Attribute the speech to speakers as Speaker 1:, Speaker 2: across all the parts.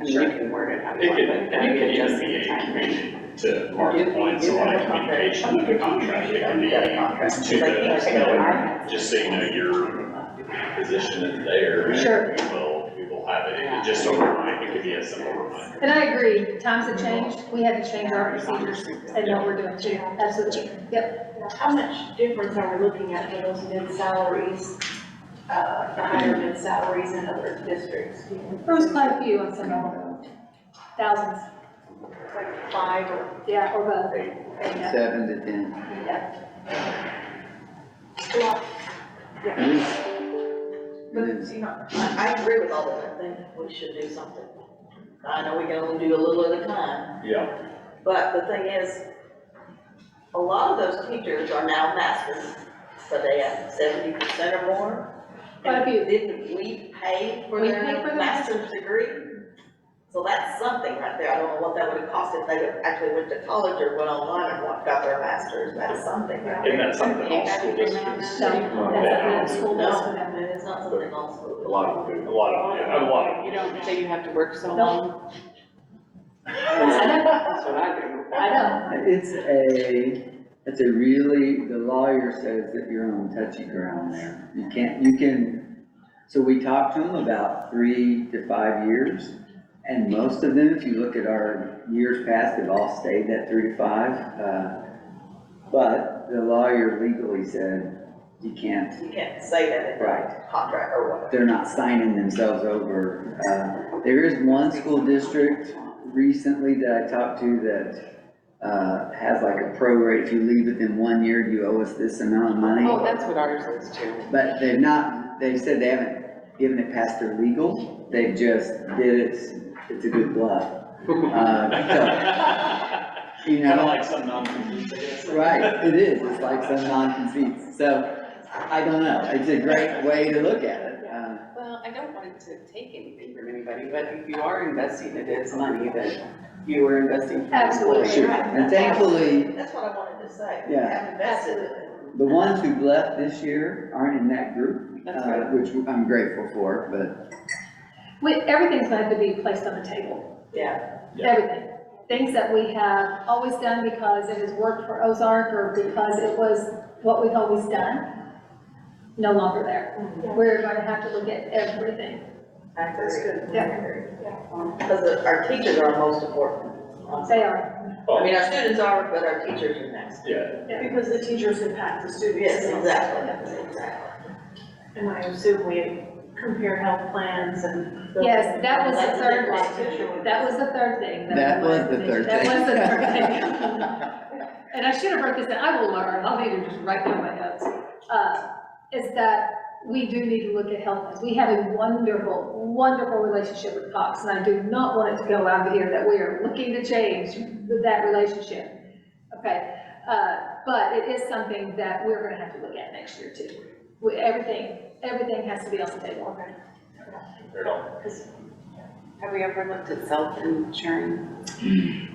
Speaker 1: I'm sure I can word it how you
Speaker 2: It
Speaker 1: want,
Speaker 2: could-
Speaker 1: but that
Speaker 2: it
Speaker 1: would
Speaker 2: could
Speaker 1: be just
Speaker 2: even
Speaker 1: in
Speaker 2: be
Speaker 1: time.
Speaker 2: to Mark's point, so like communication of the contract, it can be to the, just so you know, your position is there. and
Speaker 3: Sure.
Speaker 2: We will, we will have it, It could just a reminder, it could be a simple reminder.
Speaker 3: And I agree, times have changed, we had to change our procedures and what we're doing too, absolutely, yep.
Speaker 4: How much difference are we looking at for those mid salaries, uh, the higher mid salaries in other districts?
Speaker 3: There was quite a few on some of them, thousands,
Speaker 4: Like five or,
Speaker 3: yeah, or both, yeah,
Speaker 5: seven to ten.
Speaker 4: yeah.
Speaker 5: It is-
Speaker 6: But,
Speaker 5: it is.
Speaker 6: you know, I, I agree with all of that, I think we should do something. I know we can only do a little at a time,
Speaker 2: Yeah.
Speaker 6: but the thing is, a lot of those teachers are now masters, but they have seventy percent or more.
Speaker 3: Quite a few.
Speaker 6: Didn't we pay for
Speaker 3: We
Speaker 6: their
Speaker 3: pay for their
Speaker 6: master's degree? So that's something right there, I don't know what that would have cost if they actually went to college or went online and wa- got their master's, that's something right there.
Speaker 2: And that's something all school districts,
Speaker 3: so that's a school bus for
Speaker 6: No,
Speaker 3: them.
Speaker 6: it's not something all school.
Speaker 2: a lot of, a lot of, a lot of.
Speaker 1: You don't say you have to work so
Speaker 3: No.
Speaker 1: long.
Speaker 3: I know,
Speaker 1: That's what I do.
Speaker 3: I know,
Speaker 5: It's a, it's a really, the lawyer says that you're on touchy ground there. You can't, you can, so we talked to them about three to five years. And most of them, if you look at our years past, have all stayed that three to five. uh, But the lawyer legally said, you can't,
Speaker 6: You can't say that in
Speaker 5: right.
Speaker 6: a contract or whatever.
Speaker 5: they're not signing themselves over. Uh, There is one school district recently that I talked to that uh, has like a pro rate, if you leave within one year, you owe us this amount of
Speaker 1: Oh,
Speaker 5: money.
Speaker 1: that's what ours is too.
Speaker 5: But they've not, they've said they haven't given it past their legal, they just did it, it's a good bluff. Uh, so, You
Speaker 2: Kind of
Speaker 5: know,
Speaker 2: like some non-competes, I guess.
Speaker 5: right, it is, it's like some non-conceits, so I don't know, it's a great way to look at it. Uh,
Speaker 1: Well, I don't want to take anything from anybody, but if you are investing, it is money that you are investing. for
Speaker 3: Absolutely.
Speaker 1: employees.
Speaker 5: Sure, and thankfully,
Speaker 6: That's what I wanted to say. We
Speaker 5: Yeah.
Speaker 6: have invested in it.
Speaker 5: The ones who've left this year aren't in that group,
Speaker 1: That's
Speaker 5: uh,
Speaker 1: right.
Speaker 5: which I'm grateful for, but
Speaker 3: we, everything's going to have to be placed on the table,
Speaker 6: Yeah,
Speaker 2: Yeah.
Speaker 3: everything. Things that we have always done because it has worked for Ozark or because it was what we've always done, no longer there. We're going to have to look at everything.
Speaker 6: I agree. That's good.
Speaker 3: Yeah.
Speaker 6: Because our teachers are most important.
Speaker 3: They are,
Speaker 6: I mean, our students are, but our teachers are next.
Speaker 2: Yeah,
Speaker 7: Because the teachers impact the students.
Speaker 6: Yes, exactly, exactly.
Speaker 7: And I assume we compare health plans and.
Speaker 3: yes, that was the third
Speaker 6: Teacher.
Speaker 3: thing, that was the third thing.
Speaker 5: that was the third thing.
Speaker 3: That was the third thing. And I should have wrote this down, I will learn, I'll need to just write down my notes. Uh, Is that we do need to look at health plans. We have a wonderful, wonderful relationship with Cox, and I do not want it to go out here that we are looking to change that relationship. Okay, uh, but it is something that we're gonna have to look at next year too. We- Everything, everything has to be on the table.
Speaker 2: they're all-
Speaker 1: Have we ever looked at self-insuring?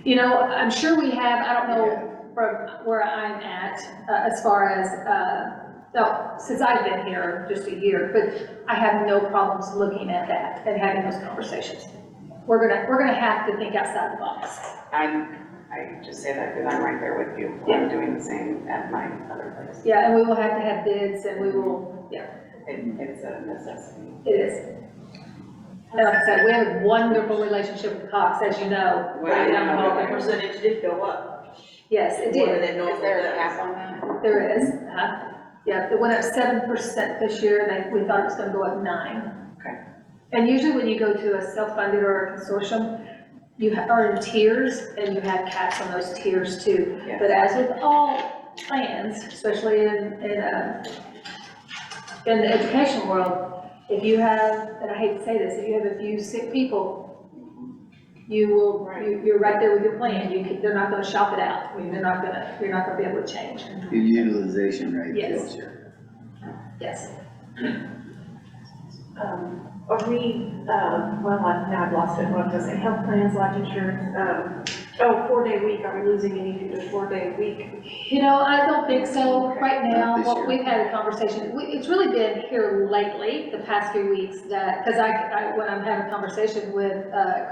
Speaker 3: You know, I'm sure we have, I don't know from where I'm at, uh, as far as, uh, no, since I've been here just a year, but I have no problems looking at that and having those conversations. We're gonna, we're gonna have to think outside the box.
Speaker 1: I'm, I just say that because I'm right there with you. I'm doing the same at my other place.
Speaker 3: Yeah, and we will have to have bids and we will,
Speaker 1: It, it's a necessity.
Speaker 3: it is. And like I said, we have a wonderful relationship with Cox, as you know.
Speaker 1: Right.
Speaker 6: But, um, the percentage did go up.
Speaker 3: Yes, it
Speaker 6: More
Speaker 3: did,
Speaker 6: than it normally
Speaker 1: Is there a
Speaker 6: does.
Speaker 1: cap on that?
Speaker 3: there is, uh, yeah, it went up seven percent this year, and I- we thought it was gonna go up nine.
Speaker 1: Okay.
Speaker 3: And usually when you go to a self-funded or a consortium, you ha- are in tiers and you have caps on those tiers too.
Speaker 1: Yeah.
Speaker 3: But as with all plans, especially in, in, uh, in the education world, if you have, and I hate to say this, if you have a few sick people, you will, you- you're right there with your plan. You, can- they're not gonna shop it out. I mean, they're not gonna, you're not gonna be able to change.
Speaker 5: Your utilization rate
Speaker 3: Yes.
Speaker 5: kills you.
Speaker 3: Yes.
Speaker 7: Um, Are we, uh, well, I- now I've lost it, what was it, health plans, life insurance, um, oh, four-day week, are we losing anything to four-day week?
Speaker 3: You know, I don't think so. Right
Speaker 5: Not
Speaker 3: now,
Speaker 5: this year.
Speaker 3: what we've had a conversation, we- it's really been here lately, the past few weeks, that, because I, I- when I'm having a conversation with uh,